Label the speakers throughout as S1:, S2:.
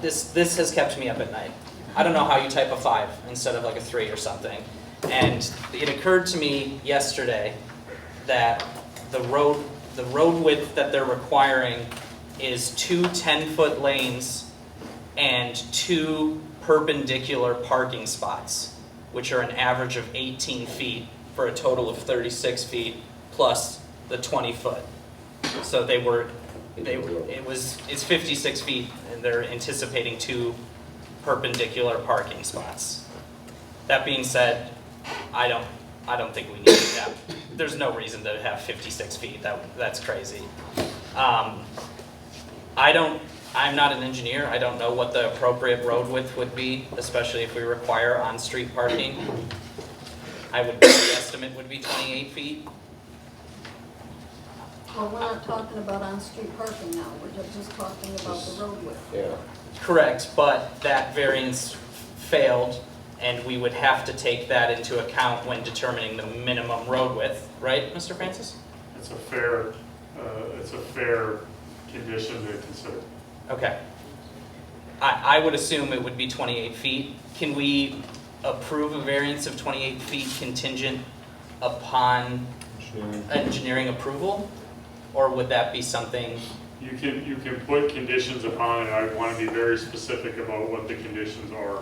S1: this, this has kept me up at night. I don't know how you type a five instead of like a three or something. And it occurred to me yesterday that the road, the road width that they're requiring is two 10-foot lanes and two perpendicular parking spots, which are an average of 18 feet for a total of 36 feet plus the 20-foot. So they were, they, it was, it's 56 feet, and they're anticipating two perpendicular parking spots. That being said, I don't, I don't think we need that. There's no reason to have 56 feet, that, that's crazy. Um, I don't, I'm not an engineer, I don't know what the appropriate road width would be, especially if we require on-street parking. I would, the estimate would be 28 feet.
S2: Well, we're not talking about on-street parking now, we're ju- just talking about the roadway.
S3: Yeah,
S1: Correct, but that variance failed, and we would have to take that into account when determining the minimum road width, right, Mr. Francis?
S4: It's a fair, uh, it's a fair condition to consider.
S1: Okay. I, I would assume it would be 28 feet. Can we approve a variance of 28 feet contingent upon engineering approval? Or would that be something,
S4: You can, you can put conditions upon it, I want to be very specific about what the conditions are.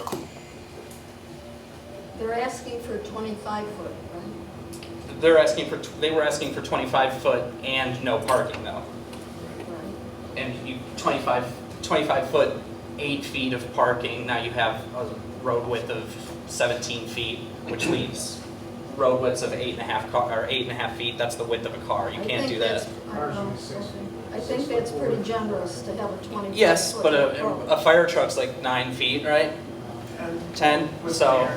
S2: They're asking for twenty-five foot, right?
S1: they're asking for, they were asking for 25 foot and no parking though.
S2: Right.
S1: And you, 25, 25 foot, eight feet of parking, now you have a road width of 17 feet, which leaves road widths of eight and a half car, or eight and a half feet, that's the width of a car, you
S2: I
S1: can't
S2: think
S1: do that.
S2: that's- I don't know, I think that's pretty generous to have a twenty-five foot.
S1: Yes, but uh, a,
S2: road.
S1: a fire truck's like nine feet, right? Ten, so,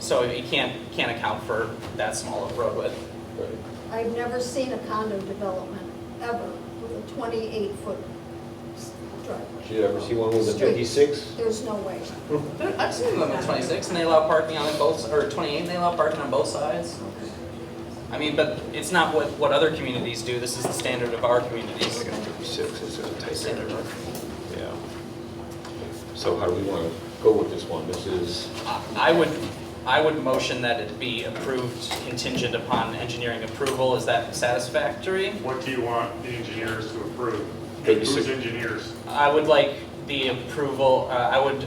S1: so you can't, can't account for that small of road width.
S3: right.
S2: I've never seen a condo development ever with a twenty-eight foot s- driveway.
S3: Did you ever see one with a
S2: Street.
S3: fifty-six?
S2: There's no way.
S1: I've seen them at twenty-six, and they allow parking on both, or twenty-eight, and they allow parking on both sides. I mean, but it's not what, what other communities do, this is the standard of our communities.
S3: Like a fifty-six, it's a tight
S1: Standard.
S3: one. Yeah. So how do we want to go with this one? This is,
S1: I I would, I would motion that it be approved contingent upon engineering approval, is that satisfactory?
S4: What do you want the engineers to approve? And
S3: Basic.
S4: who's engineers?
S1: I would like the approval, uh, I would,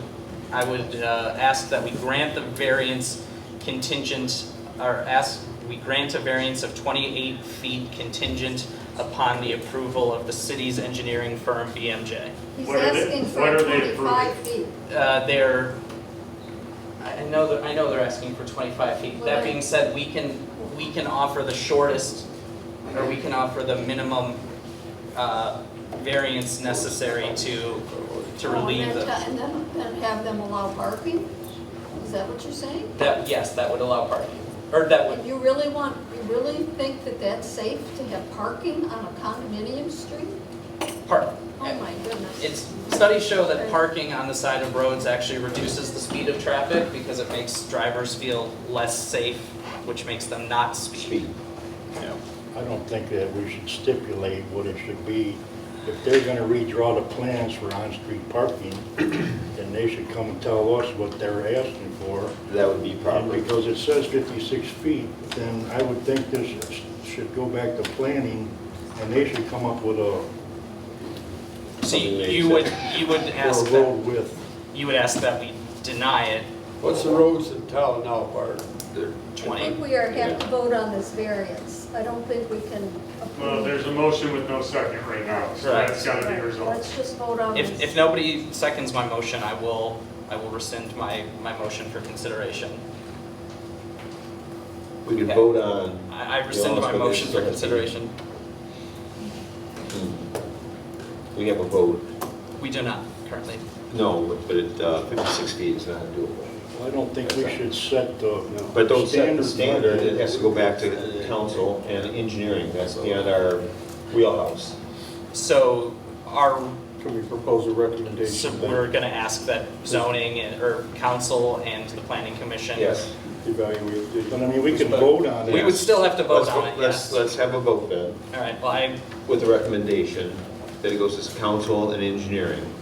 S1: I would uh, ask that we grant the variance contingent, or ask, we grant a variance of 28 feet contingent upon the approval of the city's engineering firm, BMJ.
S2: He's
S4: What are they-
S2: asking
S4: what
S2: for
S4: are they
S2: twenty-five feet.
S1: Uh, They're, I I know, that- I know they're asking for 25 feet. That being said, we can, we can offer the shortest, or we can offer the minimum uh, variance necessary to, to
S2: Oh, and
S1: relieve
S2: then
S1: the...
S2: ta- And then, then have them allow parking? Is that what you're saying?
S1: That, yes, that would allow parking, or that
S2: And
S1: would,
S2: you really want, you really think that that's safe to have parking on a condominium street?
S1: park.
S2: Oh my goodness.
S1: It's, studies show that parking on the side of roads actually reduces the speed of traffic because it makes drivers feel less safe, which makes them not speed.
S3: yeah.
S5: I don't think that we should stipulate what it should be. If they're gonna redraw the plans for on-street parking, then they should come and tell us what they're asking for.
S3: That would be
S5: And
S3: proper.
S5: because it says 56 feet, then I would think this is- should go back to planning, and they should come up with a,
S1: So you-
S3: Something
S1: you
S3: they
S1: would, you would ask
S5: for a
S1: that,
S5: road width.
S1: you would ask that we deny it
S6: What's the roads in town now, Bart?
S2: I
S1: 20.
S2: think we are, have to vote on this variance. I don't think we can approve.
S4: Well, there's a motion with no second right now, so
S1: Correct.
S4: that's got to be
S2: Right,
S4: resolved.
S2: Let's just vote on
S1: If, if
S2: this.
S1: nobody seconds my motion, I will, I will rescind my, my motion for consideration.
S3: We could
S1: Okay.
S3: vote on,
S1: I I
S3: You
S1: rescind my
S3: also
S1: motion for
S3: did
S1: consideration.
S3: hmm. we have a vote,
S1: We do not currently.
S3: no, but it, uh, fifty-six feet is not doable.
S5: Well, I don't think we should set the standard.
S3: But don't set the
S5: by
S3: standard,
S5: the-
S3: it has to go back to council and engineering, that's beyond our wheelhouse.
S1: So our
S6: Can we propose a
S1: So
S6: recommendation?
S1: we're gonna ask that zoning and, or council and the planning commission?
S3: Yes.
S6: Evaluate the-
S5: But I mean, we can vote on it.
S1: We would still have to vote
S3: Let's-
S1: on it,
S3: Let's,
S1: yes.
S3: let's have a vote then.
S1: All right, well, I,
S3: with the recommendation that it goes to council and engineering